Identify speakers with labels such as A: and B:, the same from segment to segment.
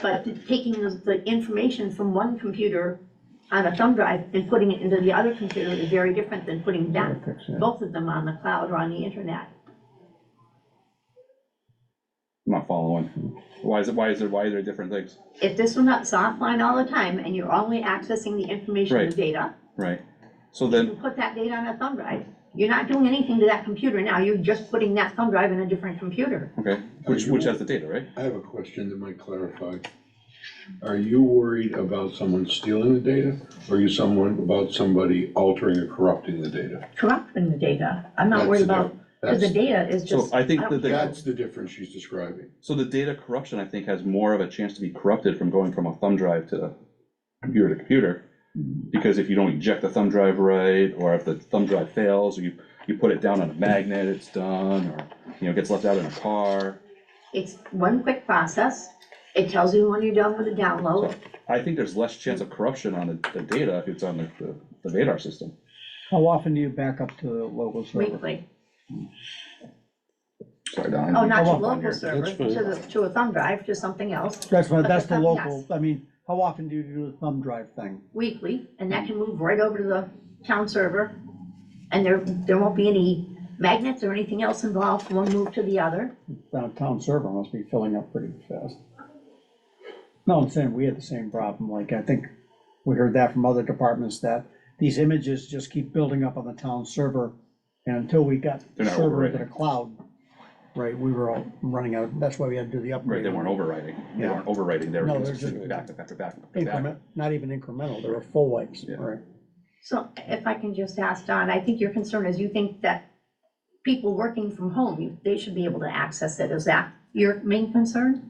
A: but taking the- the information from one computer on a thumb drive and putting it into the other computer is very different than putting that, both of them on the cloud or on the internet.
B: I'm not following. Why is it, why is it, why are there different things?
A: If this one is offline all the time and you're only accessing the information and
B: Right.
A: data,
B: Right. So
A: you
B: then,
A: put that data on a thumb drive. You're not doing anything to that computer now, you're just putting that thumb drive in a different computer.
B: okay, which, which has the data, right?
C: I have a question that might clarify. Are you worried about someone stealing the data? Or are you someone, about somebody altering or corrupting the data?
A: Corrupting the data, I'm
C: That's
A: not worried
C: the
A: about,
C: diff-
A: because the
C: That's,
A: data is
B: So
A: just,
B: I think
A: I
B: that
A: don't
B: the,
C: that's the difference she's describing.
B: so the data corruption, I think, has more of a chance to be corrupted from going from a thumb drive to computer to computer. Because if you don't eject the thumb drive right, or if the thumb drive fails, or you, you put it down on a magnet, it's done, or, you know, gets left out in a car.
A: it's one quick process. It tells you when you're done with the download,
B: So I think there's less chance of corruption on the, the data if it's on the, the- the Vadar system.
D: How often do you back up to the local server?
A: weekly.
B: Sorry, Don.
A: Oh,
B: I
A: not to
D: Come up on
A: local
D: here.
A: server,
C: That's
A: to the, to a thumb drive, to something else,
D: That's my,
A: But
D: that's the
A: the thumb- yes.
D: local, I mean, how often do you do the thumb drive thing?
A: weekly, and that can move right over to the town server. And there, there won't be any magnets or anything else involved from one move to the other.
D: Downtown server must be filling up pretty fast. No, I'm saying, we had the same problem, like, I think we heard that from other departments, that these images just keep building up on the town server, and until we got the
B: They're not
D: server into
B: overwriting.
D: the cloud, right, we were all running out, that's why we had to do the
B: Right,
D: upgrade.
B: they weren't overriding, they
D: Yeah.
B: weren't overriding, they
D: No,
B: were
D: they're
B: just
D: just-
B: back to back to back to back.
D: Increment, not even incremental, they were full wipes,
B: Yeah.
D: right.
A: So if I can just ask Don, I think your concern is you think that people working from home, you- they should be able to access it. Is that your main concern?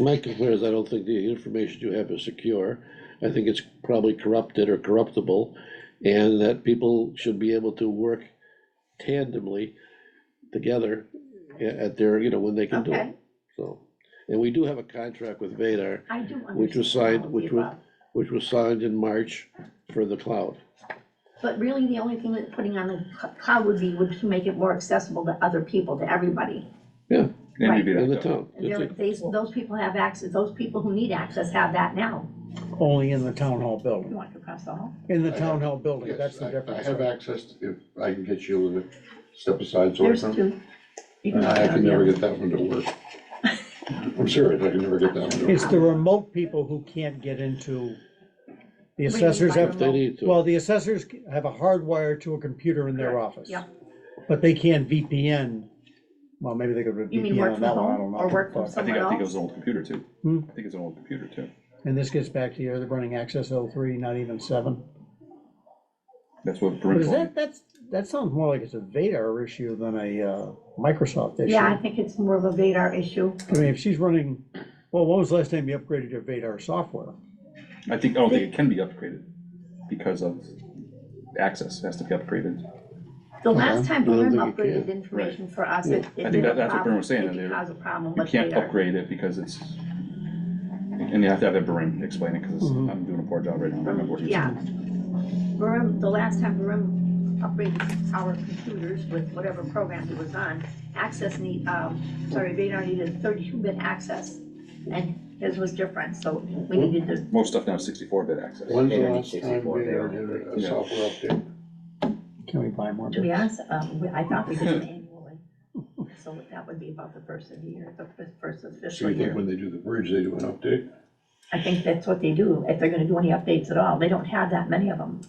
E: My concern is I don't think the information you have is secure. I think it's probably corrupted or corruptible, and that people should be able to work tandemly together a- at their, you know, when they can do
A: Okay,
E: it, so. And we do have a contract with Vadar,
A: I do understand.
E: Which was signed-
A: all of
E: which
A: the
E: was-
A: above.
E: which was signed in March for the cloud.
A: But really, the only thing that putting on the cl- cloud would be, would to make it more accessible to other people, to everybody.
B: And maybe
E: In the
B: that,
E: town.
A: And they're- they- Those people have access, those people who need access have that now.
D: Only in the town hall
A: You
D: building,
A: want to press the hall?
D: in the
C: I
D: town hall building,
C: Yes,
D: that's the
C: I-
D: difference.
C: I have access, if I can get you to step aside so I
A: There's
C: can.
A: two. You
E: Uh,
A: can
C: I
A: look
C: can
A: down
C: never
A: there.
C: get that one to work. I'm serious, I can never get that one to work.
D: It's the remote people who can't get into, the
A: What do you mean
D: assessors
A: by
D: have,
E: They need to.
D: well, the assessors have a hard wire to a computer in their office.
A: yeah.
D: But they can't VPN, well, maybe they could
A: You mean
D: VPN
A: work
D: on
A: from
D: that one, I
A: home
D: don't know.
A: or work from
D: but-
B: I think,
A: somewhere
B: I think it was
A: else?
B: an old computer too.
D: Hmm?
B: I think it's an old computer too.
D: And this gets back to you're running access O three, not even seven.
B: That's what
D: But
B: Brent
D: is
B: told me.
D: that, that's, that sounds more like it's a Vadar issue than a, uh, Microsoft issue.
A: Yeah, I think it's more of a Vadar issue.
D: I mean, if she's running, well, when was the last time you upgraded your Vadar software?
B: I think, I don't think it can be upgraded because of access has to be upgraded.
A: The last time
E: Uh-huh. I don't
A: Burnham
E: think you
A: upgraded
E: can.
A: information for us, it
B: I
A: it
B: think
A: did a
B: that- that's what Burnham
A: problem,
B: was saying,
A: it
B: that
A: did
B: they-
A: cause a problem
B: You
A: with
B: can't
A: Vadar.
B: upgrade it because it's, and you have to have a Brim explain it, because I'm doing a poor job right now. I don't remember what he was-
A: Yeah. Burnham, the last time Burnham upgraded our computers with whatever program it was on, access need, um, sorry, Vadar needed thirty-two bit access. And his was different, so
E: Hmm.
A: we needed to
B: Most stuff now is sixty-four bit access.
C: When's the
F: Internet
C: last time
F: 64
C: we
F: there.
C: had a
B: Yeah.
C: software update?
D: Can we buy more?
A: To be honest, um, we- I thought we did it annually, so that would be about the first of the year, the fif- first of
C: So
A: fiscal
C: you think
A: year.
C: when they do the bridge, they do an update?
A: I think that's what they do, if they're gonna do any updates at all, they don't have that many of them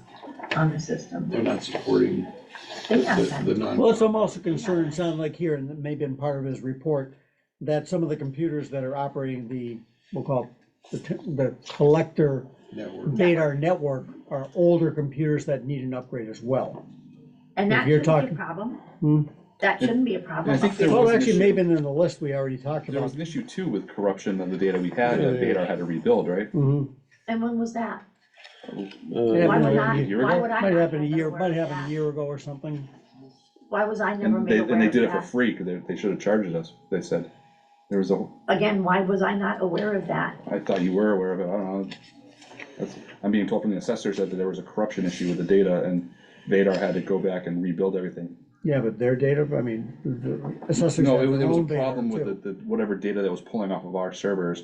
A: on the system.
C: They're not supporting
A: They have
C: the, the
A: them,
C: non.
D: Well, that's I'm also concerned, sound like here, and it may have been part of his report, that some of the computers that are operating the, we'll call it the, t- the collector
C: network.
D: data network are older computers that need an upgrade as well.
A: and that
D: If you're
A: shouldn't be a
D: talking- Hmm.
A: problem. That shouldn't be a problem.
B: I think there
D: Well,
B: was an
D: actually,
B: issue.
D: maybe in the list we already talked
B: There was
D: about.
B: an issue too with corruption of the data we had, that
E: Yeah, yeah.
B: Vadar had to rebuild, right?
D: Mhm.
A: And when was that?
E: Uh,
A: Why
D: happened
A: would
D: a
A: I,
B: year
A: why
B: ago?
A: would I?
D: Might
A: not
D: happen a
A: have
D: year,
A: been
D: might
A: aware of
D: happen a
A: that?
D: year ago or something.
A: Why was I never
B: And they,
A: made
B: and they
A: aware of
B: did it for
A: that?
B: free, because they, they should have charged us, they said. There was a, whole-
A: Again, why was I not aware of that?
B: I thought you were aware of it, I don't know. That's- I'm being told from the assessor said that there was a corruption issue with the data, and Vadar had to go back and rebuild everything.
D: Yeah, but their data, I mean, the assessors
B: No,
D: have
B: it was,
D: their
B: it was a
D: own data
B: problem with
D: too.
B: the, the, whatever data that was pulling off of our servers